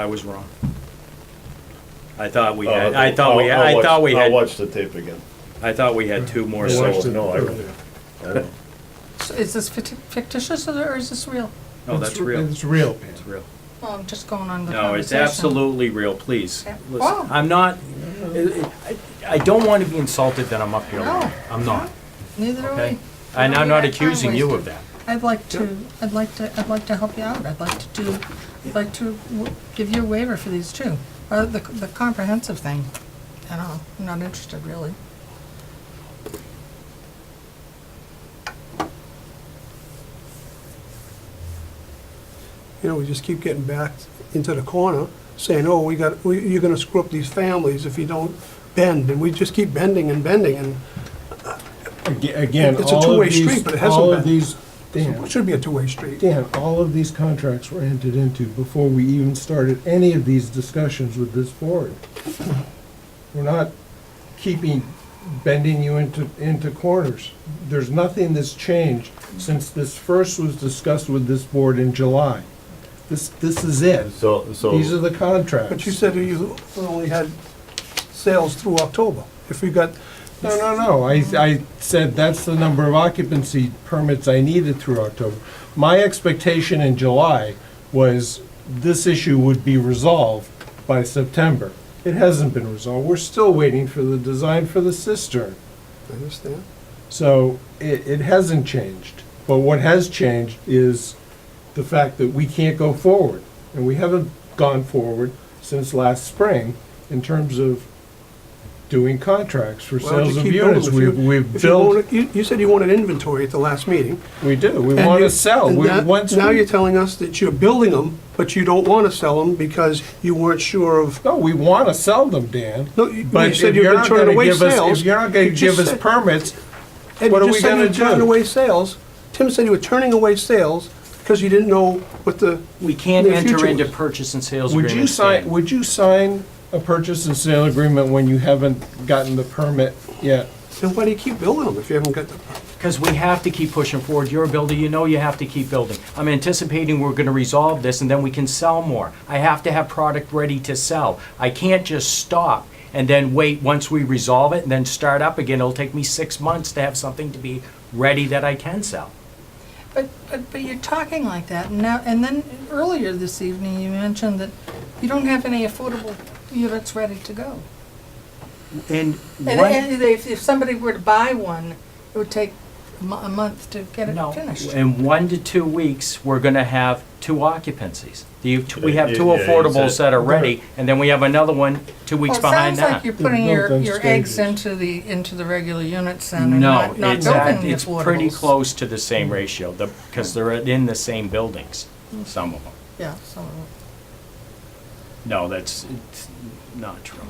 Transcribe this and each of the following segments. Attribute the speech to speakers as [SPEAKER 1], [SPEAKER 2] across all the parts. [SPEAKER 1] I was wrong. I thought we
[SPEAKER 2] Oh,
[SPEAKER 1] had, I thought we,
[SPEAKER 2] I'll- I'll
[SPEAKER 1] I thought
[SPEAKER 2] watch-
[SPEAKER 1] we
[SPEAKER 2] I'll
[SPEAKER 1] had,
[SPEAKER 2] watch the tape again.
[SPEAKER 1] I thought we had two more
[SPEAKER 2] Yeah,
[SPEAKER 1] sold.
[SPEAKER 2] watch No, I don't. I don't.
[SPEAKER 3] So Is this ficti- fictitious or is this real?
[SPEAKER 1] No, that's real.
[SPEAKER 4] It's real,
[SPEAKER 1] It's real.
[SPEAKER 3] Well, I'm just going on the
[SPEAKER 1] No, it's
[SPEAKER 3] conversation.
[SPEAKER 1] absolutely real, please.
[SPEAKER 3] Yeah.
[SPEAKER 1] Listen,
[SPEAKER 3] Oh.
[SPEAKER 1] I'm not, I, I- I don't want to be insulted that I'm up here.
[SPEAKER 3] No.
[SPEAKER 1] lying. I'm not,
[SPEAKER 3] Neither do
[SPEAKER 1] okay?
[SPEAKER 3] we.
[SPEAKER 1] And I'm
[SPEAKER 3] we
[SPEAKER 1] not
[SPEAKER 3] got time
[SPEAKER 1] accusing you of that.
[SPEAKER 3] I'd like to, I'd like to, I'd like to help you out. I'd like to do, I'd like to w- give you a waiver for these two. Uh, the, the comprehensive thing, I don't know, I'm not interested really.
[SPEAKER 5] You know, we just keep getting back into the corner, saying, oh, we got, we- you're gonna screw up these families if you don't bend, and we just keep bending and bending, and
[SPEAKER 6] Aga- Again,
[SPEAKER 5] It's a
[SPEAKER 6] all
[SPEAKER 5] two-way
[SPEAKER 6] of
[SPEAKER 5] street, but it
[SPEAKER 6] these,
[SPEAKER 5] hasn't
[SPEAKER 6] all of
[SPEAKER 5] been.
[SPEAKER 6] these,
[SPEAKER 5] it
[SPEAKER 6] Dan,
[SPEAKER 5] should be a two-way street.
[SPEAKER 6] Dan, all of these contracts were entered into before we even started any of these discussions with this board. We're not keeping, bending you into, into corners. There's nothing that's changed since this first was discussed with this board in July. This, this is it.
[SPEAKER 2] So, so.
[SPEAKER 6] These are the contracts.
[SPEAKER 5] But you said you only had sales through October. If we got,
[SPEAKER 6] No, no, no, I, I said that's the number of occupancy permits I needed through October. My expectation in July was this issue would be resolved by September. It hasn't been resolved, we're still waiting for the design for the cistern.
[SPEAKER 5] I understand,
[SPEAKER 6] So it, it hasn't changed, but what has changed is the fact that we can't go forward. And we haven't gone forward since last spring in terms of doing contracts for
[SPEAKER 5] Why don't you
[SPEAKER 6] sales of
[SPEAKER 5] keep building
[SPEAKER 6] units.
[SPEAKER 5] if
[SPEAKER 6] We've,
[SPEAKER 5] you-
[SPEAKER 6] we've
[SPEAKER 5] if you
[SPEAKER 6] built,
[SPEAKER 5] wanted- You, you said you wanted inventory at the last meeting.
[SPEAKER 6] we do, we
[SPEAKER 5] and
[SPEAKER 6] want
[SPEAKER 5] you-
[SPEAKER 6] to sell.
[SPEAKER 5] and
[SPEAKER 6] We,
[SPEAKER 5] that-
[SPEAKER 6] once,
[SPEAKER 5] Now
[SPEAKER 6] we-
[SPEAKER 5] you're telling us that you're building them, but you don't wanna sell them because you weren't sure of,
[SPEAKER 6] no, we want to sell them, Dan.
[SPEAKER 5] No, you- you
[SPEAKER 6] But
[SPEAKER 5] said
[SPEAKER 6] if
[SPEAKER 5] you've
[SPEAKER 6] you're
[SPEAKER 5] been
[SPEAKER 6] not
[SPEAKER 5] turning
[SPEAKER 6] gonna
[SPEAKER 5] away
[SPEAKER 6] give us-
[SPEAKER 5] sales,
[SPEAKER 6] If you're not going
[SPEAKER 5] you
[SPEAKER 6] to
[SPEAKER 5] just
[SPEAKER 6] give us
[SPEAKER 5] said-
[SPEAKER 6] permits,
[SPEAKER 5] Ed,
[SPEAKER 6] What
[SPEAKER 5] you
[SPEAKER 6] are we
[SPEAKER 5] just said you
[SPEAKER 6] gonna
[SPEAKER 5] were turning
[SPEAKER 6] do?
[SPEAKER 5] away sales. Tim said you were turning away sales because you didn't know what the,
[SPEAKER 1] We can't
[SPEAKER 5] The future
[SPEAKER 1] enter into
[SPEAKER 5] was-
[SPEAKER 1] purchase and sales
[SPEAKER 6] Would you
[SPEAKER 1] agreements.
[SPEAKER 6] sign,
[SPEAKER 1] Dan.
[SPEAKER 6] would you sign a purchase and sale agreement when you haven't gotten the permit yet?
[SPEAKER 5] then why do you keep building them if you haven't got the,
[SPEAKER 1] Because we have to keep pushing forward. You're a builder, you know you have to keep building. I'm anticipating we're gonna resolve this and then we can sell more. I have to have product ready to sell. I can't just stop and then wait once we resolve it and then start up again. It'll take me six months to have something to be ready that I can sell.
[SPEAKER 3] But, but, but you're talking like that and now, and then earlier this evening, you mentioned that you don't have any affordable units ready to go.
[SPEAKER 1] And
[SPEAKER 3] And,
[SPEAKER 1] what?
[SPEAKER 3] and if, if somebody were to buy one, it would take a mo- a month to get it
[SPEAKER 1] No,
[SPEAKER 3] finished.
[SPEAKER 1] in one to two weeks, we're gonna have two occupancies. The- We have two
[SPEAKER 2] Yeah, yeah, you
[SPEAKER 1] affordables
[SPEAKER 2] said-
[SPEAKER 1] that are ready and then we have another one two
[SPEAKER 3] Well,
[SPEAKER 1] weeks
[SPEAKER 3] it
[SPEAKER 1] behind
[SPEAKER 3] Sounds like
[SPEAKER 1] that.
[SPEAKER 3] you're putting
[SPEAKER 6] built
[SPEAKER 3] your,
[SPEAKER 6] on
[SPEAKER 3] your eggs
[SPEAKER 6] stages.
[SPEAKER 3] into the, into the regular units and
[SPEAKER 1] No,
[SPEAKER 3] not, not
[SPEAKER 1] it's, at-
[SPEAKER 3] building the
[SPEAKER 1] it's pretty
[SPEAKER 3] affordables.
[SPEAKER 1] close to the same ratio, the, because they're in the same buildings, some of them.
[SPEAKER 3] Yeah, some of them.
[SPEAKER 1] No, that's, it's not true.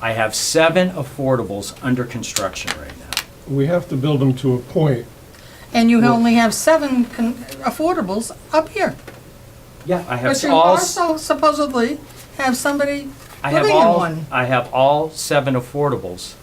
[SPEAKER 1] I have seven affordables under construction right now.
[SPEAKER 6] We have to build them to a point.
[SPEAKER 3] And you only have seven con- affordables up here.
[SPEAKER 1] Yeah. I have
[SPEAKER 3] But you
[SPEAKER 1] all, s-
[SPEAKER 3] also supposedly have somebody
[SPEAKER 1] I have
[SPEAKER 3] living in
[SPEAKER 1] all,
[SPEAKER 3] one
[SPEAKER 1] I have all seven affordables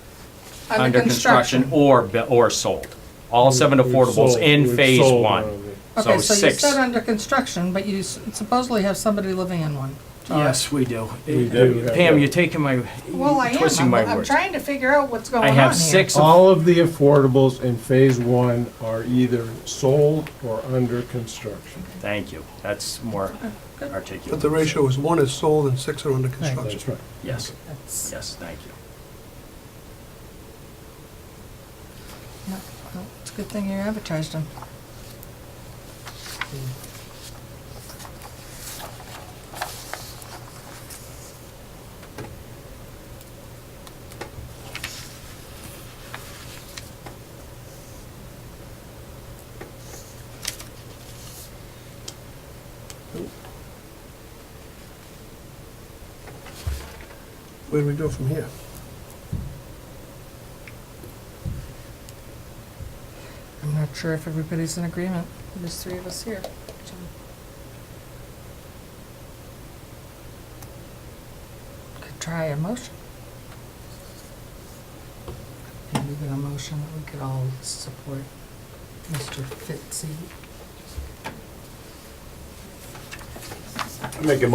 [SPEAKER 3] under construction.
[SPEAKER 1] or, bu- or sold. All seven
[SPEAKER 6] We've
[SPEAKER 1] affordables
[SPEAKER 6] sold-
[SPEAKER 1] in
[SPEAKER 6] we've
[SPEAKER 1] phase
[SPEAKER 6] sold
[SPEAKER 1] one.
[SPEAKER 6] all of it.
[SPEAKER 3] Okay,
[SPEAKER 1] So
[SPEAKER 3] so you
[SPEAKER 1] six.
[SPEAKER 3] said under construction, but you s- supposedly have somebody living in one.
[SPEAKER 1] Yes, we do.
[SPEAKER 6] do.
[SPEAKER 1] Pam, you're taking my,
[SPEAKER 3] Well, I
[SPEAKER 1] you're
[SPEAKER 3] am.
[SPEAKER 1] twisting
[SPEAKER 3] I'm,
[SPEAKER 1] my
[SPEAKER 3] I'm
[SPEAKER 1] words.
[SPEAKER 3] trying to figure out what's going
[SPEAKER 1] I
[SPEAKER 3] on here.
[SPEAKER 1] have six of
[SPEAKER 6] All of the affordables in phase one are either sold or under construction.
[SPEAKER 1] Thank you. That's more articulate.
[SPEAKER 5] but the ratio is one is sold and six are under construction.
[SPEAKER 6] That's right.
[SPEAKER 1] Yes,
[SPEAKER 3] That's-
[SPEAKER 1] yes, thank you.
[SPEAKER 3] No, no, It's a good thing you advertised them.
[SPEAKER 5] Where do we go from here?
[SPEAKER 3] I'm not sure if everybody's in agreement. There's three of us here. so. Could try a motion. Maybe we get a motion that we could all support Mr. Fitzy.
[SPEAKER 2] Make a